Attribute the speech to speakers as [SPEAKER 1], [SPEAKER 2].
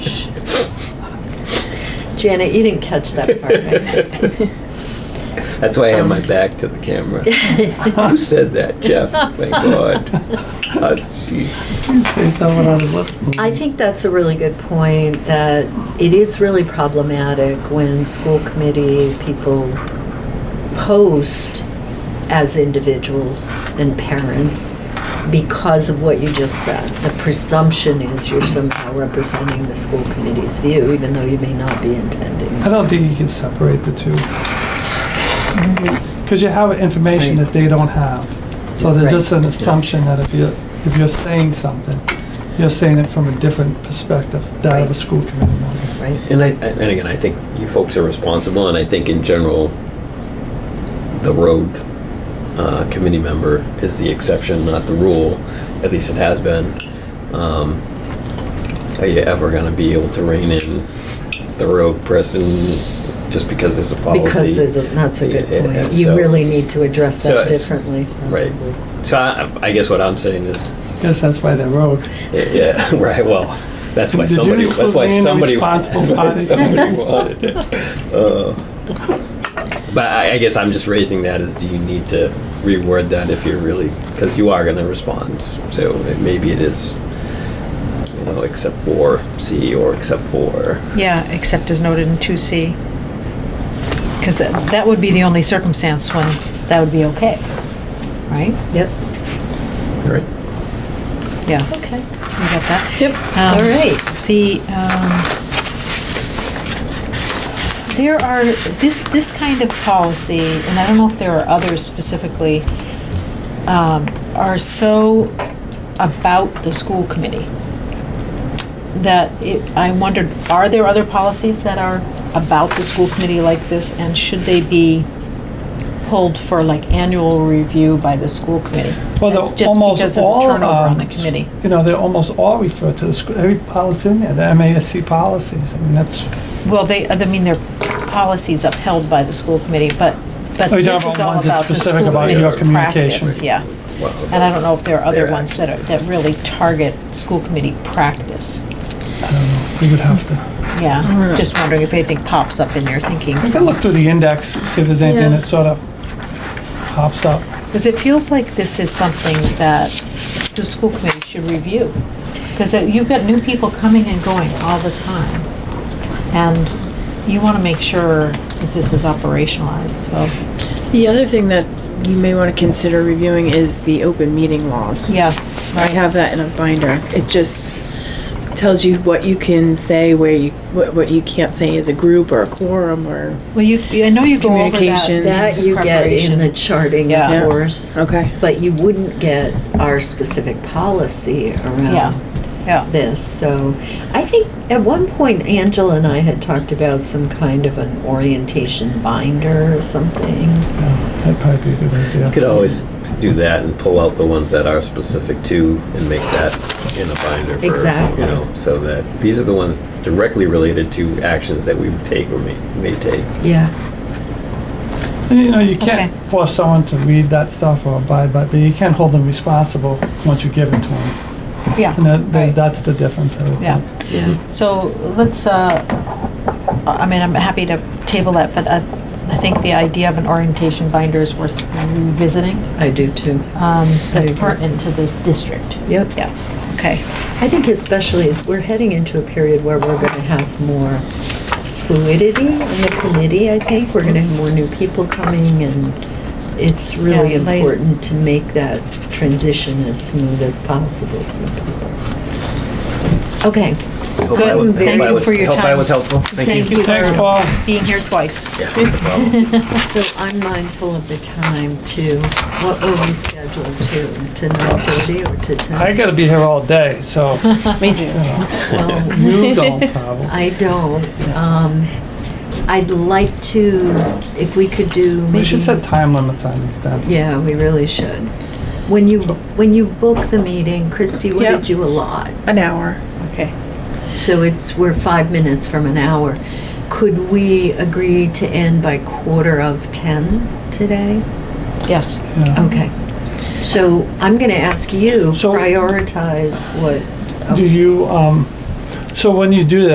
[SPEAKER 1] Janet, you didn't catch that part, right?
[SPEAKER 2] That's why I have my back to the camera. Who said that, Jeff? My God. Uh, gee.
[SPEAKER 3] Say someone on his left.
[SPEAKER 1] I think that's a really good point, that it is really problematic when school committee people post as individuals and parents because of what you just said. The presumption is you're somehow representing the school committee's view, even though you may not be intending.
[SPEAKER 3] I don't think you can separate the two. Because you have information that they don't have. So there's just an assumption that if you're, if you're saying something, you're saying it from a different perspective, that of a
[SPEAKER 1] Right.
[SPEAKER 3] school committee member.
[SPEAKER 1] Right?
[SPEAKER 2] And I, and again, I think you folks are responsible, and I think in general, the rogue uh, committee member is the exception, not the rule. At least it has been. Um, are you ever going to be able to rein in the rogue person just because there's a policy?
[SPEAKER 1] Because there's a, that's a good
[SPEAKER 2] Yeah, yeah,
[SPEAKER 1] point.
[SPEAKER 2] so-
[SPEAKER 1] You really need to address
[SPEAKER 2] So
[SPEAKER 1] that
[SPEAKER 2] it's-
[SPEAKER 1] differently.
[SPEAKER 2] Right.
[SPEAKER 1] probably.
[SPEAKER 2] So I, I guess what I'm saying is,
[SPEAKER 3] Guess that's why they're rogue.
[SPEAKER 2] Yeah, right, well, that's why
[SPEAKER 3] Did you
[SPEAKER 2] somebody, that's why
[SPEAKER 3] include me in
[SPEAKER 2] somebody.
[SPEAKER 3] the responsible
[SPEAKER 2] that's why
[SPEAKER 3] parties?
[SPEAKER 2] somebody wanted it. Uh, But I, I guess I'm just raising that as, do you need to reword that if you're really, because you are gonna respond, so it- maybe it is, you know, except for C or except for,
[SPEAKER 4] Yeah, except as noted in 2C. Because that would be the only circumstance when that would be okay, right?
[SPEAKER 1] Yep,
[SPEAKER 2] right?
[SPEAKER 4] Yeah,
[SPEAKER 1] okay.
[SPEAKER 4] we got that.
[SPEAKER 1] Yep.
[SPEAKER 4] Um,
[SPEAKER 1] All right.
[SPEAKER 4] The, um, there are, this, this kind of policy, and I don't know if there are others specifically, um, are so about the school committee that it, I wondered, are there other policies that are about the school committee like this? And should they be pulled for like annual review by the school committee?
[SPEAKER 3] Well, they're
[SPEAKER 4] That's just
[SPEAKER 3] almost
[SPEAKER 4] because of the
[SPEAKER 3] all,
[SPEAKER 4] turnover on the
[SPEAKER 3] um,
[SPEAKER 4] committee.
[SPEAKER 3] You know, they almost all refer to the school, every policy in there, the MASC policies. I mean, that's,
[SPEAKER 4] Well, they, I mean, their policies upheld by the school committee, but, but
[SPEAKER 3] Oh, you're talking
[SPEAKER 4] this
[SPEAKER 3] about
[SPEAKER 4] is all
[SPEAKER 3] ones that's
[SPEAKER 4] about the
[SPEAKER 3] specific
[SPEAKER 4] school
[SPEAKER 2] about your
[SPEAKER 4] committee's
[SPEAKER 3] communication.
[SPEAKER 4] practice. Yeah,
[SPEAKER 2] Well,
[SPEAKER 4] and I don't know if there are other
[SPEAKER 2] Their
[SPEAKER 4] ones that, are- that really target school committee practice.
[SPEAKER 3] I don't know, we would have to.
[SPEAKER 4] Yeah, just wondering if anything pops up in your thinking.
[SPEAKER 3] We could look through the index, see if there's anything
[SPEAKER 1] Yeah.
[SPEAKER 3] that sort of pops up.
[SPEAKER 4] Because it feels like this is something that the school committee should review. Because you've got new people coming and going all the time. And you want to make sure that this is operationalized, so.
[SPEAKER 5] The other thing that you may want to consider reviewing is the open meeting laws.
[SPEAKER 4] Yeah,
[SPEAKER 5] I have that in a binder. It just tells you what you can say, where you, what, what you can't say as a group or a quorum or,
[SPEAKER 4] Well, you, you- I know you go over
[SPEAKER 5] Communications.
[SPEAKER 4] that.
[SPEAKER 1] That you get in the charting
[SPEAKER 4] Yeah.
[SPEAKER 1] course.
[SPEAKER 5] okay.
[SPEAKER 1] But you wouldn't get our specific policy
[SPEAKER 4] Yeah,
[SPEAKER 1] around
[SPEAKER 4] yeah.
[SPEAKER 1] this. So I think at one point Angela and I had talked about some kind of an orientation binder or something.
[SPEAKER 3] Yeah, That'd probably be a good idea.
[SPEAKER 2] You could always do that and pull out the ones that are specific to and make that in a binder for,
[SPEAKER 1] Exactly.
[SPEAKER 2] you know, so that these are the ones directly related to actions that we would take or may, may take.
[SPEAKER 1] Yeah.
[SPEAKER 3] And, You know, you can't
[SPEAKER 4] Okay.
[SPEAKER 3] force someone to read that stuff or abide by, it, but you can hold them responsible once you give it to them.
[SPEAKER 4] Yeah.
[SPEAKER 3] And that, there's-
[SPEAKER 4] right.
[SPEAKER 3] that's the difference, I would think.
[SPEAKER 4] Yeah.
[SPEAKER 1] Yeah.
[SPEAKER 4] So let's, uh, I mean, I'm happy to table that, but I, I think the idea of an orientation binder is worth revisiting.
[SPEAKER 1] I do too.
[SPEAKER 4] Um, That's
[SPEAKER 1] agree.
[SPEAKER 4] pertinent to this district.
[SPEAKER 1] Yep.
[SPEAKER 4] Yeah, okay.
[SPEAKER 1] I think especially as we're heading into a period where we're going to have more fluidity in the committee, I think. We're going to have more new people coming and it's really
[SPEAKER 4] Yeah, like-
[SPEAKER 1] important to make that transition as smooth as possible for people. Okay,
[SPEAKER 2] Hope I was-
[SPEAKER 4] Good.
[SPEAKER 2] hope
[SPEAKER 4] Thank
[SPEAKER 2] I
[SPEAKER 4] you
[SPEAKER 2] was-
[SPEAKER 4] for your
[SPEAKER 2] Hope I
[SPEAKER 4] time.
[SPEAKER 2] was helpful.
[SPEAKER 4] Thank you
[SPEAKER 3] Thanks, Paul.
[SPEAKER 4] for being here twice.
[SPEAKER 2] Yeah, no problem.
[SPEAKER 1] so I'm mindful of the time too. What were we scheduled to, to 9:30 or to 10?
[SPEAKER 3] I gotta be here all day, so
[SPEAKER 5] Me too.
[SPEAKER 1] Well,
[SPEAKER 3] you don't, Pavel.
[SPEAKER 1] I don't. Um, I'd like to, if we could do maybe...
[SPEAKER 3] We should set time limits on these things.
[SPEAKER 1] Yeah, we really should. When you, when you book the meeting, Christy, what
[SPEAKER 5] Yeah.
[SPEAKER 1] did you allot?
[SPEAKER 5] An hour.
[SPEAKER 4] Okay.
[SPEAKER 1] So it's, we're five minutes from an hour. Could we agree to end by quarter of 10 today?
[SPEAKER 4] Yes.
[SPEAKER 3] Yeah.
[SPEAKER 1] Okay. So I'm going to ask you,
[SPEAKER 3] So-
[SPEAKER 1] prioritize what...
[SPEAKER 3] Do you, um, so when you do that,